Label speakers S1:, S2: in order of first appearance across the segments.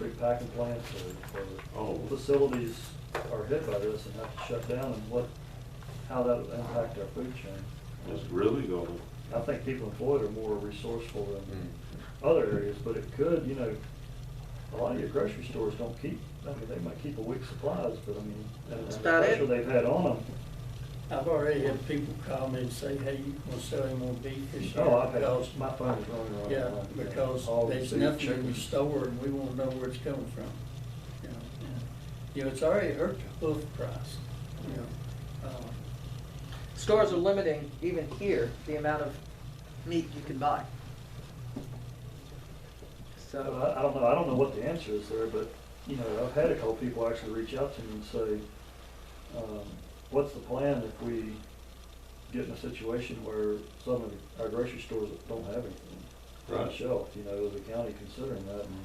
S1: big packing plants or,
S2: Oh.
S1: or facilities are hit by this and have to shut down and what, how that will impact our food chain.
S2: It's really gonna,
S1: I think people in Floyd are more resourceful than other areas, but it could, you know, a lot of your grocery stores don't keep, I mean, they might keep a week's supplies, but I mean, and and
S3: That's
S1: the
S3: about it.
S1: pressure they've had on them.
S4: I've already had people call me and say, hey, you gonna sell any more beef this year?
S1: Oh, I've had,
S4: Because-
S1: my phone is running around.
S4: Yeah,
S1: all night.
S4: because
S1: All the
S4: there's
S1: food,
S4: nothing in
S1: chicken.
S4: the store and we wanna know where it's coming from. you know. You know, it's already hurt the hoof price, you know. Uh,
S3: Stores are limiting, even here, the amount of meat you can buy.
S1: So
S3: So,
S1: I, I don't know, I don't know what the answer is there, but, you know, I've had a couple people actually reach out to me and say, um, what's the plan if we get in a situation where some of our grocery stores don't have anything? on the
S2: Right.
S1: shelf, you know, as a county considering that, and,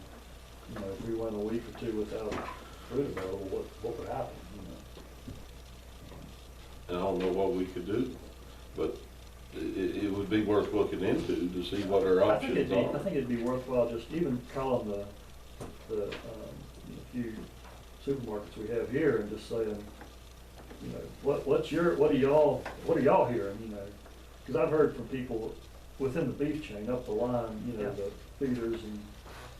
S1: you know, if we went a week or two without food available, what, what would happen, you know?
S2: and I don't know what we could do, but i- i- it would be worth looking into to see what our
S1: I think it'd
S2: options
S1: be, I think
S2: are.
S1: it'd be worthwhile just even calling the, the, um, you know, few supermarkets we have here and just saying, you know, what, what's your, what are y'all, what are y'all hearing, you know? uh, Cause I've heard from people within the beef chain, up the line, you know,
S3: Yeah.
S1: the feeders and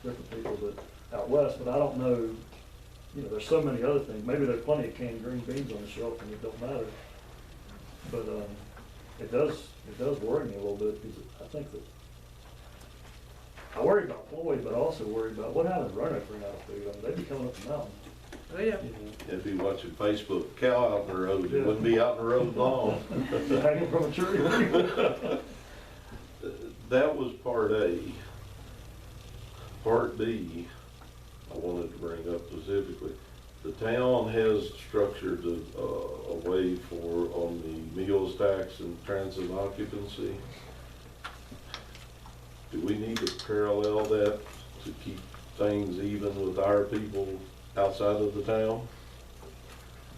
S1: different people that, out west, but I don't know, you know, there's so many other things, maybe there's plenty of canned green beans on the shelf and it don't matter. But, um, it does, it does worry me a little bit, because I think that, I worry about Floyd, but I also worry about what happened to Roanoke for out of food, I mean, they'd be coming up the mountain,
S3: oh yeah,
S1: you know.
S2: If you watching Facebook, cow out in the road,
S1: Yeah.
S2: it wouldn't be out in the road long.
S1: hanging from a tree.
S2: That was part A. Part B, I wanted to bring up specifically, the town has structured a, a a way for, on the meals tax and transit occupancy. Do we need to parallel that to keep things even with our people outside of the town?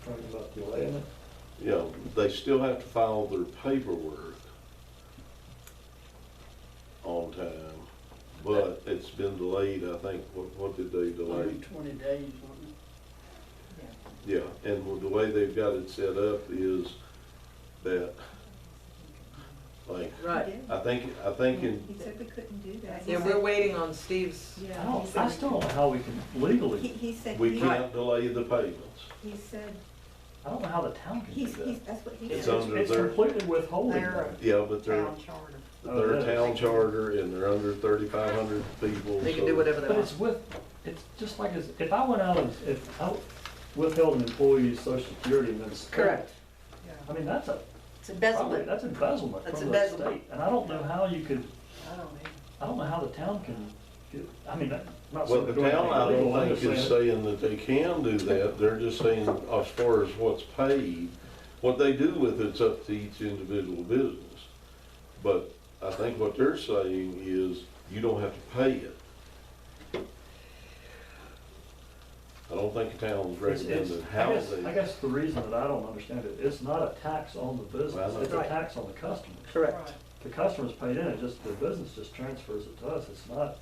S1: Talking about delaying it.
S2: You know, they still have to file their paperwork on time, but it's been delayed, I think, what, what did they delay?
S4: 120 days, wasn't it?
S2: Yeah, and the way they've got it set up is that, like,
S3: right.
S2: I think, I think in,
S5: He said we couldn't do that. He
S3: uh, Yeah, we're
S5: said-
S3: waiting on Steve's,
S1: I
S5: Yeah, he
S1: don't,
S5: said
S1: Oh, I
S5: we
S1: still don't know how we can legally,
S5: He, he said,
S2: we
S5: he,
S2: can't delay the payments.
S5: he said,
S1: I don't know how the town can do
S5: he's, he's,
S1: that.
S5: that's what he
S2: It's
S5: said.
S2: under
S1: It's
S2: their,
S1: completely withholding
S6: They're-
S1: money.
S2: yeah, but they're,
S6: town charter.
S2: they're a town charter and they're under thirty-five hundred people.
S3: they can
S2: so-
S3: do whatever they
S1: But
S3: want.
S1: it's with, it's just like, as- if I went out and, if I withheld an employee's social security and then. spent it,
S3: Correct.
S1: I mean, that's a,
S6: It's
S1: probably,
S6: embezzlement.
S1: that's embezzlement
S3: That's
S1: from the
S3: embezzlement.
S1: state, and I don't know how you could,
S6: I don't know.
S1: I don't know how the town can, get- I mean, I'm not
S2: Well,
S1: saying.
S2: the
S1: they're doing
S2: town, I
S1: anything illegal, I'm
S2: don't
S1: just
S2: think is
S1: saying-
S2: saying that they can do that, they're just saying as far as what's paid, what they do with it's up to each individual business. But I think what they're saying is, you don't have to pay it. I don't think the town's
S1: It's- it's-
S2: recommending
S1: I
S2: how
S1: guess- I
S2: they,
S1: guess the reason that I don't understand it, it's not a tax on the business,
S2: Well,
S1: it's a
S3: Right.
S1: tax on the customer.
S3: Correct.
S1: The customer's paid in, it just, the business just transfers it to us, it's not,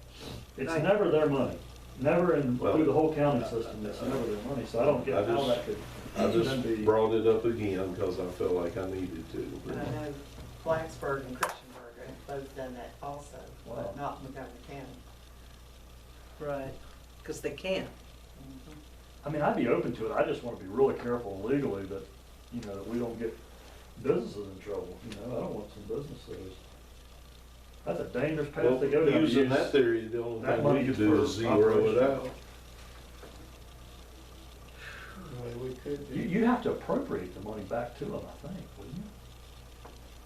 S1: it's
S3: Right.
S1: never their money. Never in,
S2: Well,
S1: through the whole county system, it's never their money, so I don't
S2: I
S1: get how
S2: just-
S1: that could
S2: I
S1: even
S2: just
S1: be.
S2: brought it up again, cause I felt like I needed to.
S6: And I know Blacksburg and Christiansburg have both done that also,
S1: Wow.
S6: but not Montgomery County.
S3: Right. Because they can.
S1: I mean, I'd be open to it, I just wanna be really careful legally that, you know, that we don't get businesses in trouble, you know, I don't want some businesses. That's a dangerous path
S2: Well,
S1: to go down.
S2: using that theory, the only
S1: that
S2: thing
S1: money
S2: we could
S1: just
S2: do
S1: for
S2: is zero it out.
S1: operations.
S4: Well, we could
S1: You,
S4: do.
S1: you have to appropriate the money back to them, I think, wouldn't you?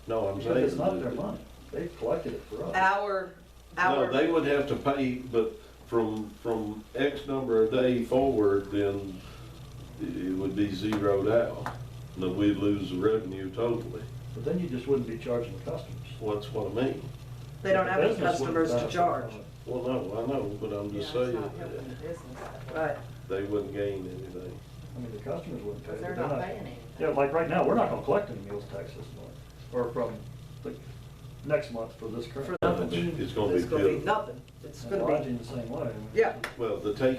S2: No, I'm saying.
S1: Because it's not
S2: that-
S1: their money, they've collected it for us.
S3: Our,
S2: No, they
S3: our,
S2: would have to pay, but from, from X number of day forward, then it would be zeroed out. And then we'd lose the revenue totally.
S1: But then you just wouldn't be charging the customers.
S2: Well, That's what I mean.
S3: they don't have any
S1: Business wouldn't
S3: customers to
S1: benefit
S3: charge.
S1: from it.
S2: Well, no, I know, but I'm
S6: Yeah,
S2: just
S6: it's
S2: saying,
S6: not helping the business. that way.
S3: Right.
S2: they wouldn't gain anything.
S1: I mean, the customers wouldn't pay.
S6: Because
S1: but
S6: they're not paying anything.
S1: Yeah, like right now, we're not gonna collect any meals tax this month, or from the next month for this current.
S3: For
S2: It's gonna be
S3: It's gonna be
S2: good.
S3: nothing. It's
S1: And
S3: gonna be,
S1: lodging the same way. I mean,
S3: Yeah.
S2: Well, the take